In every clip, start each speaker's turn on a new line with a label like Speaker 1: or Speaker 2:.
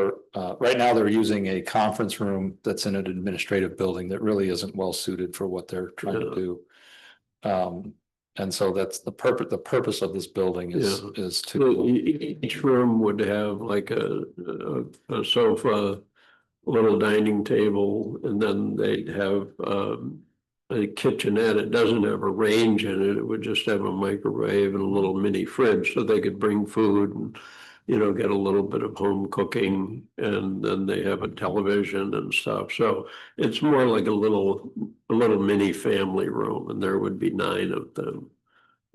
Speaker 1: they're, uh, right now they're using a conference room that's in an administrative building that really isn't well suited for what they're trying to
Speaker 2: Yeah.
Speaker 1: do. Um, and so that's the purpose, the purpose of this building is, is
Speaker 2: So
Speaker 1: to,
Speaker 2: e- Each room would have like a, a- a sofa, a little dining table, and then they'd have, um, a kitchenette. It doesn't have a range in it. It would just have a microwave and a little mini fridge so they could bring food and, you know, get a little bit of home cooking. And then they have a television and stuff. So it's more like a little, a little mini family room and there would be nine of them.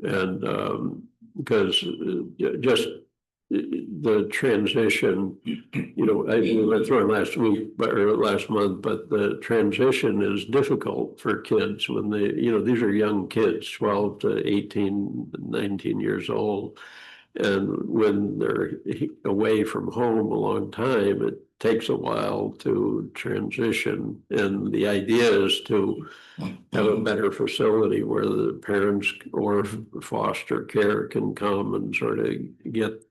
Speaker 2: And, um, because uh, ju- just uh, the transition, you know, I we went through it last week, but or last month, but the transition is difficult for kids when they, you know, these are young kids, twelve to 18, 19 years old. And when they're he- away from home a long time, it takes a while to transition. And the idea is to have a better facility where the parents or foster care can come and sort of get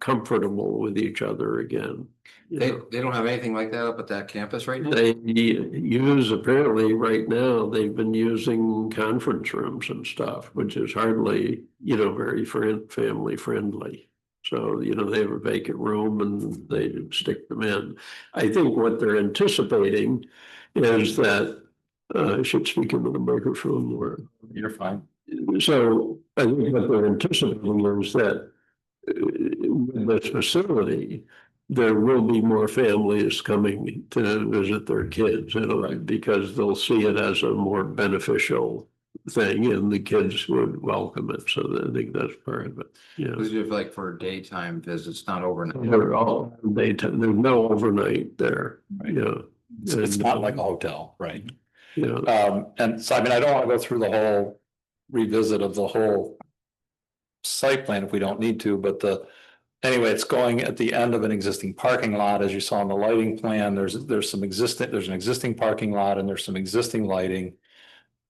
Speaker 2: comfortable with each other again. you
Speaker 3: They,
Speaker 2: know.
Speaker 3: they don't have anything like that up at that campus right now?
Speaker 2: They use, apparently, right now, they've been using conference rooms and stuff, which is hardly, you know, very friend, family friendly. So, you know, they have a vacant room and they stick them in. I think what they're anticipating is that, uh, I should speak into the microphone where
Speaker 1: you're fine.
Speaker 2: so I think what they're anticipating is that uh, with this facility, there will be more families coming to visit their kids, you know, because they'll see it as a more beneficial thing and the kids would welcome it. So I think that's part of it, yeah.
Speaker 3: Those are like for daytime visits, not overnight.
Speaker 2: They're all, they, there's no overnight there, yeah,
Speaker 1: It's, it's not like a hotel, right?
Speaker 2: yeah.
Speaker 1: Um, and so, I mean, I don't want to go through the whole revisit of the whole site plan if we don't need to, but the, anyway, it's going at the end of an existing parking lot, as you saw in the lighting plan, there's, there's some existing, there's an existing parking lot and there's some existing lighting.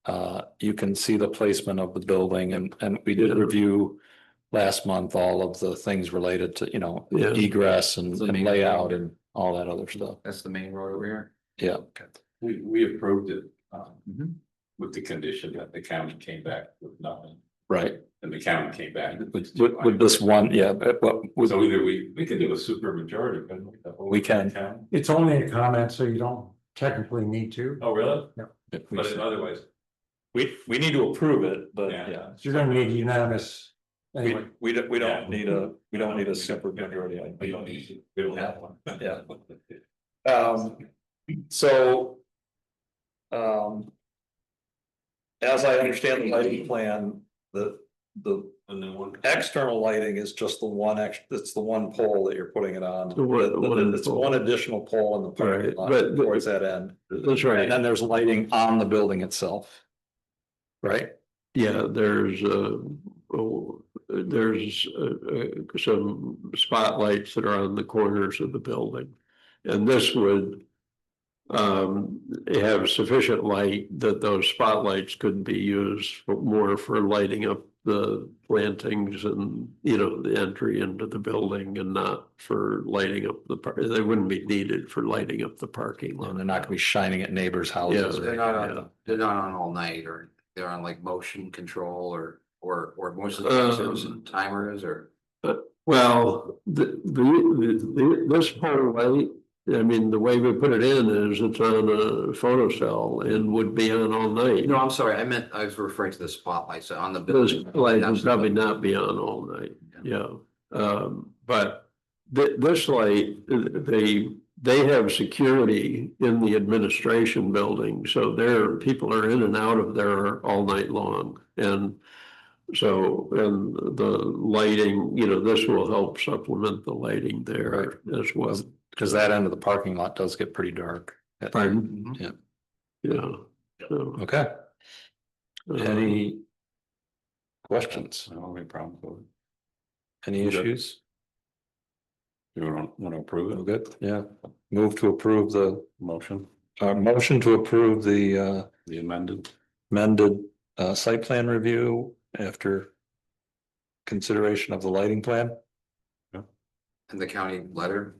Speaker 1: Uh, you can see the placement of the building and, and we did review last month all of the things related to, you know,
Speaker 2: Yeah.
Speaker 1: egress and
Speaker 3: The
Speaker 1: and
Speaker 3: main-
Speaker 1: layout and all that other stuff,
Speaker 3: That's the main road over here.
Speaker 1: yeah.
Speaker 4: We, we approved it, um,
Speaker 3: Mhm.
Speaker 4: with the condition that the county came back with nothing,
Speaker 1: Right,
Speaker 4: and the county came back.
Speaker 1: with, with with this one, yeah, but, but with
Speaker 4: So either we, we could do a super majority, couldn't we? The whole
Speaker 1: We can.
Speaker 4: town?
Speaker 5: It's only a comment, so you don't technically need to.
Speaker 4: Oh, really?
Speaker 1: If we
Speaker 4: But
Speaker 1: s-
Speaker 4: otherwise,
Speaker 1: uh, We, we need to approve it, but
Speaker 4: Yeah.
Speaker 1: yeah,
Speaker 5: You're gonna need unanimous
Speaker 1: we,
Speaker 5: anyway.
Speaker 1: we don't, we
Speaker 4: Yeah.
Speaker 1: don't need a, we don't need a separate majority. I-
Speaker 4: we don't need, to- we don't have one.
Speaker 1: Yeah. Um, so. Um. As I understand the lighting plan, the, the
Speaker 4: And then one.
Speaker 1: external lighting is just the one ex, it's the one pole that you're putting it on.
Speaker 2: The one- one
Speaker 1: It's
Speaker 2: pole.
Speaker 1: one additional pole in the parking
Speaker 2: Right,
Speaker 1: lot
Speaker 2: but- but-
Speaker 1: towards that end.
Speaker 2: That's right.
Speaker 1: And then there's lighting on the building itself. Right?
Speaker 2: Yeah, there's uh, oh, there's uh, uh, some spotlights that are on the corners of the building. And this would um, have sufficient light that those spotlights could be used for- more for lighting up the plantings and, you know, the entry into the building and not for lighting up the park. They wouldn't be needed for lighting up the parking lot.
Speaker 1: And they're not gonna be shining at neighbors' houses.
Speaker 2: Yeah.
Speaker 1: or
Speaker 3: They're not
Speaker 2: Yeah.
Speaker 3: on, they're not on all night or they're on like motion control or, or, or motion
Speaker 2: Um,
Speaker 3: sensors and timers or.
Speaker 2: Well, the, the, the, this pole light, I mean, the way we put it in is it's on a photocell and would be on all night.
Speaker 3: No, I'm sorry. I meant, I was referring to the spotlights on the.
Speaker 2: Those
Speaker 3: building.
Speaker 2: lights
Speaker 3: That's
Speaker 2: would
Speaker 3: the
Speaker 2: probably
Speaker 3: building.
Speaker 2: not be on all night, yeah. Um, but thi- this light, they, they have security in the administration building, so their, people are in and out of there all night long. And so, and the lighting, you know, this will help supplement the lighting there as well.
Speaker 1: Cause that end of the parking lot does get pretty dark.
Speaker 2: Pardon?
Speaker 3: Mhm.
Speaker 2: Yeah. So,
Speaker 1: Okay,
Speaker 2: uh,
Speaker 1: any questions?
Speaker 4: I don't have any problem with it.
Speaker 1: Any issues?
Speaker 4: You don't want to approve
Speaker 1: All
Speaker 4: it?
Speaker 1: good, yeah. Move to approve the,
Speaker 4: Motion,
Speaker 1: uh, motion to approve the, uh,
Speaker 4: the amended.
Speaker 1: amended, uh, site plan review after consideration of the lighting plan.
Speaker 3: And the county letter